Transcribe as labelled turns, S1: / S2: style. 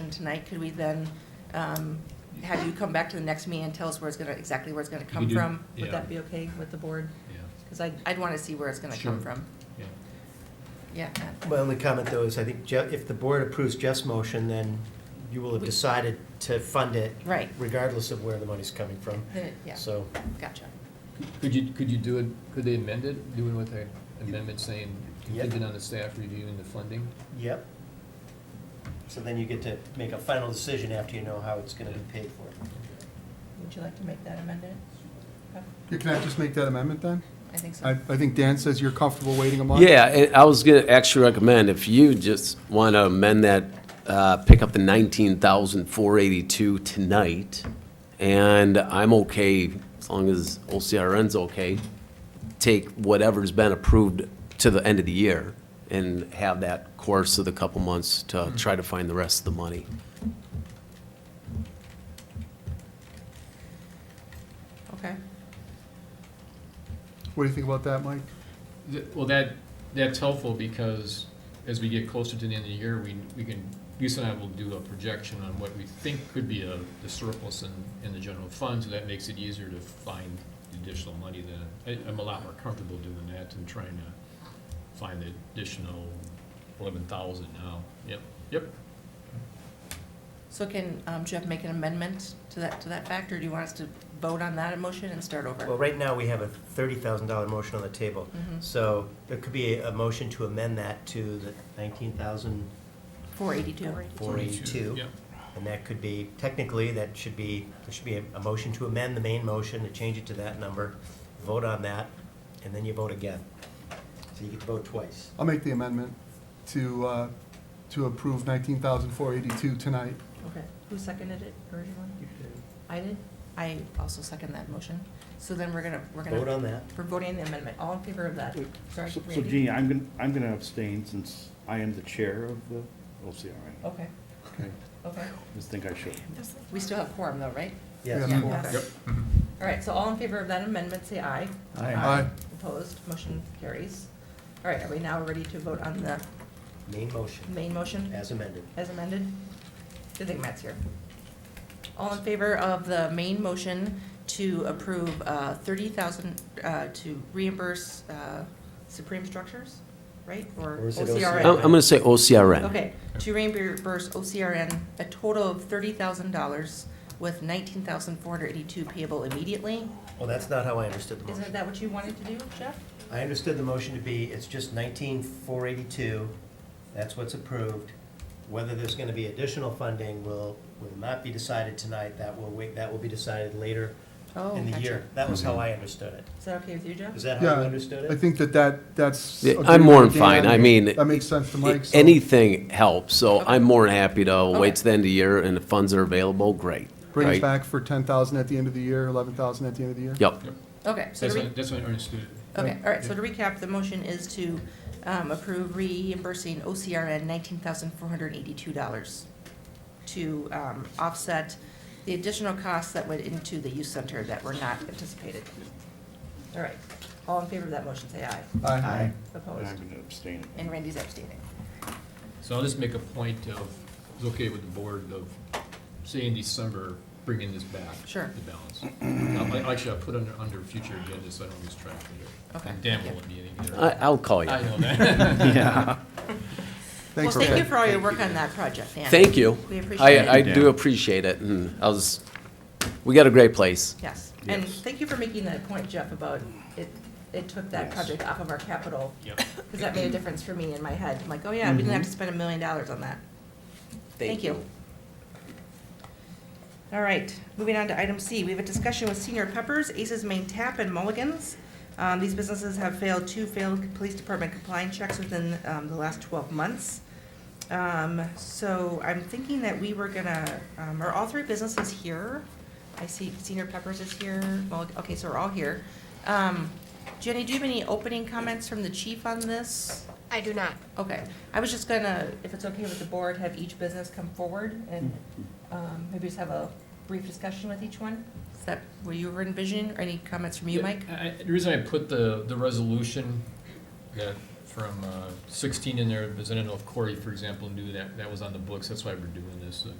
S1: motion tonight, could we then um, have you come back to the next meeting and tell us where it's going to, exactly where it's going to
S2: You
S1: come
S2: do-
S1: from? Would
S2: yeah.
S1: that be okay with the board?
S2: Yeah,
S1: Because I'd, I'd want to see where it's going to come
S2: Sure.
S1: from.
S2: yeah.
S1: Yeah. uh,
S3: My only comment, though, is I think Jeff, if the board approves Jeff's motion, then you will have decided to fund it
S1: Right.
S3: regardless of where the money's coming from.
S1: The- Yeah,
S3: So,
S1: gotcha.
S4: Could you, could you do it, could they amend it, doing with an amendment saying
S3: Yeah.
S4: contingent on the staff reviewing the funding?
S3: yep. So then you get to make a final decision after you know how it's gonna be paid for.
S1: Would you like to make that amendment?
S5: Yeah, Can I just make that amendment then?
S1: I think
S5: I,
S1: so.
S5: I think Dan says you're comfortable waiting a month.
S6: Yeah, and I was gonna actually recommend, if you just want to amend that, uh, pick up the nineteen thousand four eighty-two tonight, and I'm okay, as long as OCRN's okay, take whatever's been approved to the end of the year and have that course of the couple months to
S1: Hmm.
S6: try to find the rest of the money.
S1: Okay.
S5: What do you think about that, Mike?
S4: Th- Well, that, that's helpful because as we get closer to the end of the year, we, we can, Lisa and I will do a projection on what we think could be a, the surplus in, in the general fund, so that makes it easier to find the additional money then. I, I'm a lot more comfortable doing that than trying to find the additional eleven thousand now. Yep, yep.
S1: So can um, Jeff make an amendment to that, to that fact, or do you want us to vote on that motion and start
S3: Well,
S1: over?
S3: right now, we have a thirty thousand dollar motion on the table.
S1: Mhm.
S3: So there could be a motion to amend that to the nineteen thousand
S1: 482.
S3: four eighty-two.
S4: Yep.
S3: And that could be, technically, that should be, there should be a, a motion to amend the main motion, to change it to that number, vote on that, and then you vote again. So you get to vote twice.
S5: I'll make the amendment to, uh, to approve nineteen thousand four eighty-two tonight.
S1: Okay. Who seconded it originally? I did. I also second that motion. So then we're gonna, we're
S3: Vote
S1: gonna,
S3: on that.
S1: we're voting on the amendment. All in favor of that? Sorry,
S7: So so
S1: Randy?
S7: Jeannie, I'm gonna, I'm gonna abstain since I am the chair of the OCRN.
S1: Okay,
S7: Okay.
S1: okay.
S7: Just think I should.
S1: We still have quorum though, right?
S3: Yes.
S5: Yeah.
S1: okay.
S4: Mm-hmm.
S1: All right, so all in favor of that amendment, say aye.
S7: Aye.
S5: Aye.
S1: Opposed, motion carries. All right, are we now ready to vote on the
S3: Main motion,
S1: main motion
S3: as amended.
S1: as amended? Good thing Matt's here. All in favor of the main motion to approve uh, 30,000, uh, to reimburse uh, Supreme Structures, right?
S3: Or is it
S1: OCRN?
S3: OCRN?
S6: I'm, I'm gonna say OCRN.
S1: Okay, to reimburse OCRN a total of thirty thousand dollars with nineteen thousand four hundred eighty-two payable immediately.
S3: Well, that's not how I understood the motion.
S1: Isn't that what you wanted to do, Jeff?
S3: I understood the motion to be, it's just nineteen four eighty-two, that's what's approved. Whether there's gonna be additional funding will, will not be decided tonight, that will wait, that will be decided later
S1: Oh,
S3: in the
S1: gotcha.
S3: year. That was how I understood it.
S1: Is that okay with you, Jeff?
S3: Is that how
S5: Yeah,
S3: Uh, you understood
S5: I
S3: it?
S5: think that that, that's.
S6: Yeah, I'm
S5: agreeable
S6: more
S5: with
S6: than fine.
S5: Dan.
S6: I mean,
S5: That makes sense to Mike. so-
S6: Anything helps, so
S1: Okay.
S6: I'm more than happy to
S1: Okay.
S6: wait to the end of the year and if funds are available, great.
S5: Bring us
S6: right?
S5: back for ten thousand at the end of the year, eleven thousand at the end of the year.
S6: Yep.
S1: Okay, so
S4: That's
S1: to re-
S4: what, that's what I understood.
S1: okay, all right, so to recap, the motion is to, um, approve reimbursing OCRN nineteen thousand four hundred eighty-two dollars to, um, offset the additional costs that went into the youth center that were not anticipated. All right, all in favor of that motion, say aye.
S5: Aye.
S7: And I'm
S1: Opposed?
S7: gonna abstain.
S1: And Randy's abstaining.
S4: So I'll just make a point of, it's okay with the board of, say in December, bringing this back.
S1: Sure.
S4: The balance. Now, I- Actually, I'll put under, under future agendas, so I don't lose track of it.
S1: Okay.
S4: And Dan won't be in
S6: I,
S4: either.
S6: I'll call you.
S4: I know that.
S1: Well,
S5: Thanks,
S1: thank you
S5: Dan.
S1: for all your work on that project, Dan.
S6: Thank you.
S1: We appreciate
S6: I, I
S1: it.
S6: do appreciate it, and I was, we got a great place.
S1: Yes, and thank you for making that point, Jeff, about it, it took that
S7: Yes.
S1: project off of our capital,
S4: Yep.
S1: because that made a difference for me in my head. I'm like, oh yeah, we didn't have to spend a million dollars on that. Thank you. All right, moving on to item C, we have a discussion with Senior Peppers, Aces Main Tap, and Mulligan's. Um, these businesses have failed two failed police department compliance checks within, um, the last twelve months. Um, so I'm thinking that we were gonna, um, are all three businesses here? I see Senior Peppers is here, well, okay, so we're all here. Um, Jenny, do you have any opening comments from the chief on this?
S8: I do not.
S1: Okay, I was just gonna, if it's okay with the board, have each business come forward and um, maybe just have a brief discussion with each one? Is that what you were envisioning, or any comments from you, Mike?
S4: I- I- The reason I put the, the resolution that from uh, sixteen in there, because I don't know if Corey, for example, knew that, that was on the books, that's why we're doing this. uh,